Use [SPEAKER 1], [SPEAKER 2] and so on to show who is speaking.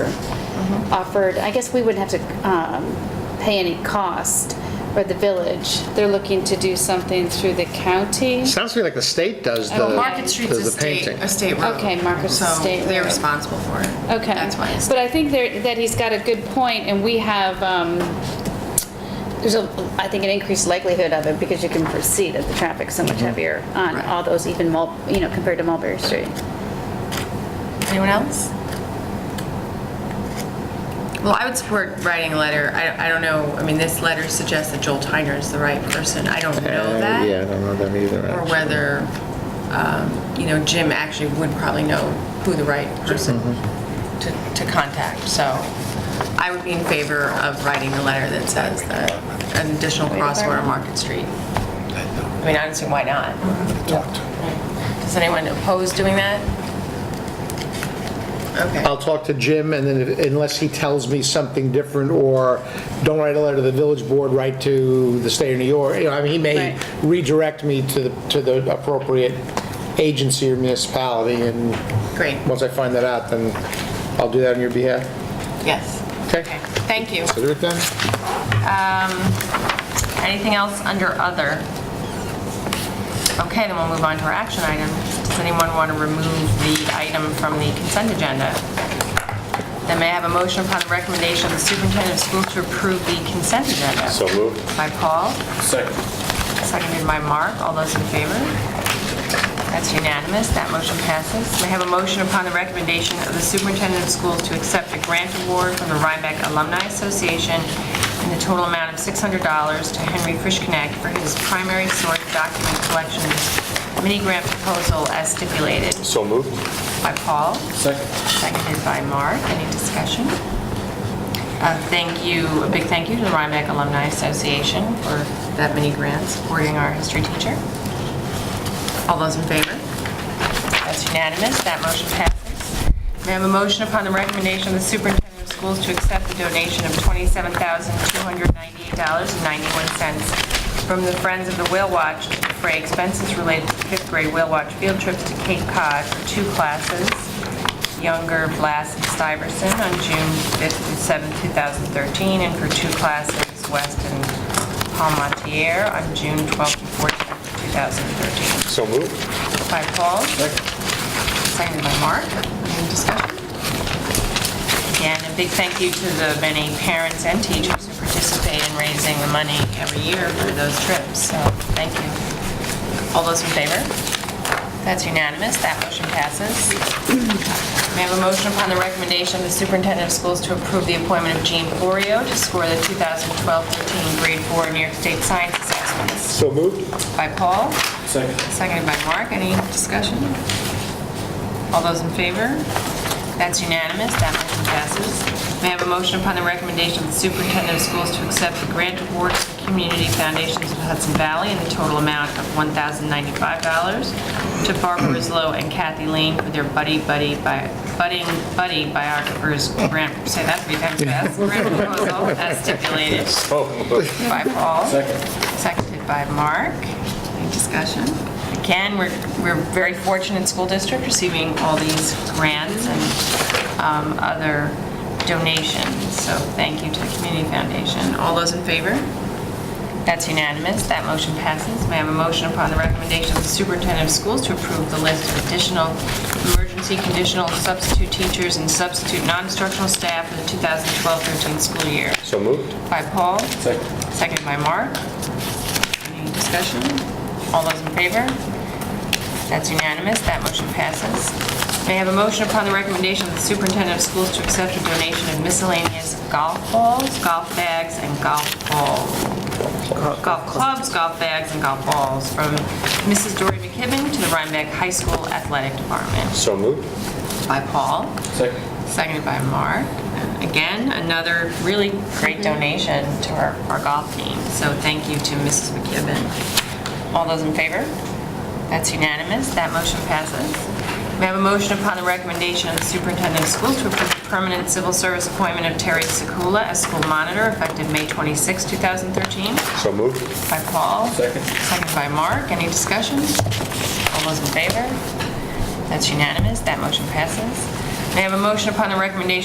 [SPEAKER 1] Mm-hmm.
[SPEAKER 2] offered, I guess we wouldn't have to um, pay any cost for the village. They're looking to do something through the county.
[SPEAKER 3] Sounds to me like the state does the,
[SPEAKER 2] Well,
[SPEAKER 1] Market
[SPEAKER 3] does
[SPEAKER 1] Street's a
[SPEAKER 3] the
[SPEAKER 1] state,
[SPEAKER 3] painting.
[SPEAKER 1] a state road.
[SPEAKER 2] Okay, Market's a state
[SPEAKER 1] So they're
[SPEAKER 2] road.
[SPEAKER 1] responsible for it.
[SPEAKER 2] Okay.
[SPEAKER 1] That's why. it's-
[SPEAKER 2] But I think there- that he's got a good point, and we have, um, there's a, I think, an increased likelihood of it because you can foresee that the traffic's so much heavier on
[SPEAKER 1] Mm-hmm. Right.
[SPEAKER 2] all those, even, Mul- you know, compared to Mulberry Street.
[SPEAKER 1] Anyone else? Well, I would support writing a letter. I, I don't know, I mean, this letter suggests that Joel Tyner is the right person. I don't know
[SPEAKER 3] Uh,
[SPEAKER 1] that.
[SPEAKER 3] Yeah, I don't know them either.
[SPEAKER 1] Or
[SPEAKER 3] actually.
[SPEAKER 1] whether, um, you know, Jim actually would probably know who the right person to, to contact. So I would be in favor of writing a letter that says that an additional crosswalk on Market Street. I mean, I don't see why not. Does anyone oppose doing that? Okay.
[SPEAKER 3] I'll talk to Jim, and then if- unless he tells me something different, or don't write a letter to the village board, write to the state of New York, you know, I mean, he may
[SPEAKER 2] Right.
[SPEAKER 3] redirect me to the, to the appropriate agency or municipality, and
[SPEAKER 1] Great.
[SPEAKER 3] once I find that out, then I'll do that on your behalf.
[SPEAKER 1] Yes.
[SPEAKER 3] Okay.
[SPEAKER 1] Thank you.
[SPEAKER 3] So do it then.
[SPEAKER 1] Anything else under other? Okay, then we'll move on to our action item. Does anyone want to remove the item from the consent agenda? Then may I have a motion upon the recommendation of the superintendent of schools to approve the consent agenda?
[SPEAKER 4] So moved.
[SPEAKER 1] By Paul,
[SPEAKER 4] Second.
[SPEAKER 1] seconded by Mark. All those in favor? That's unanimous. That motion passes. May I have a motion upon the recommendation of the superintendent of schools to accept a grant award from the Rhinebeck Alumni Association in the total amount of $600 to Henry Frischknecht for his primary source document collection mini grant proposal as stipulated
[SPEAKER 4] So moved.
[SPEAKER 1] by Paul,
[SPEAKER 4] Second.
[SPEAKER 1] seconded by Mark. Any discussion? Uh, Thank you, a big thank you to the Rhinebeck Alumni Association for that mini grant supporting our history teacher. All those in favor? That's unanimous, that motion passes. May I have a motion upon the recommendation of the superintendent of schools to accept the donation of $27,298.91 from the Friends of the Whale Watch to defray expenses related to fifth grade whale watch field trips to Cape Cod for two classes, Younger, Blast, and Stuyvesant on June 5th through 7th, 2013, and for two classes, West and Palmatier on June 12th and 14th, 2013
[SPEAKER 4] So moved.
[SPEAKER 1] by Paul. Seconded by Mark. Any discussion? Again, a big thank you to the many parents and teachers who participate in raising the money every year for those trips, so thank you. All those in favor? That's unanimous, that motion passes. May I have a motion upon the recommendation of the superintendent of schools to approve the appointment of Jean Florio to score the 2012-13 Grade 4 New York State Science Assessments?
[SPEAKER 4] So moved.
[SPEAKER 1] By Paul.
[SPEAKER 4] Second.
[SPEAKER 1] Seconded by Mark. Any discussion? All those in favor? That's unanimous. That motion passes. May I have a motion upon the recommendation of the superintendent of schools to accept the grant award to the Community Foundations of Hudson Valley in the total amount of $1,095 to Barbara Rislow and Kathy Lane for their Buddy Buddy bi- Budding Buddy Biographers Grant, say that three times fast, grant proposal as stipulated
[SPEAKER 4] So moved.
[SPEAKER 1] by Paul.
[SPEAKER 4] Second.
[SPEAKER 1] Seconded by Mark. Any discussion? Again, we're, we're very fortunate school district receiving all these grants and um, other donations, so thank you to the Community Foundation. All those in favor? That's unanimous, that motion passes. May I have a motion upon the recommendation of the superintendent of schools to approve the list of additional emergency conditional substitute teachers and substitute non-instructional staff for the 2012-13 school year?
[SPEAKER 4] So moved.
[SPEAKER 1] By Paul.
[SPEAKER 4] Second.
[SPEAKER 1] Seconded by Mark. Any discussion? All those in favor? That's unanimous, that motion passes. May I have a motion upon the recommendation of the superintendent of schools to accept a donation of miscellaneous golf balls, golf bags, and golf balls, golf clubs, golf bags, and golf balls from Mrs. Dory McKibben to the Rhinebeck High School Athletic Department?
[SPEAKER 4] So moved.
[SPEAKER 1] By Paul.
[SPEAKER 4] Second.
[SPEAKER 1] Seconded by Mark. Again, another really great donation to our, our golf team. So thank you to Mrs. McKibben. All those in favor? That's unanimous. That motion passes. May I have a motion upon the recommendation of the superintendent of schools to approve the permanent civil service appointment of Terry Sekula as school monitor effective May 26, 2013?
[SPEAKER 4] So moved.
[SPEAKER 1] By Paul.
[SPEAKER 4] Second.
[SPEAKER 1] Second by Mark. Any discussion? All those in favor? That's unanimous. That motion passes. May I have a motion upon the recommendation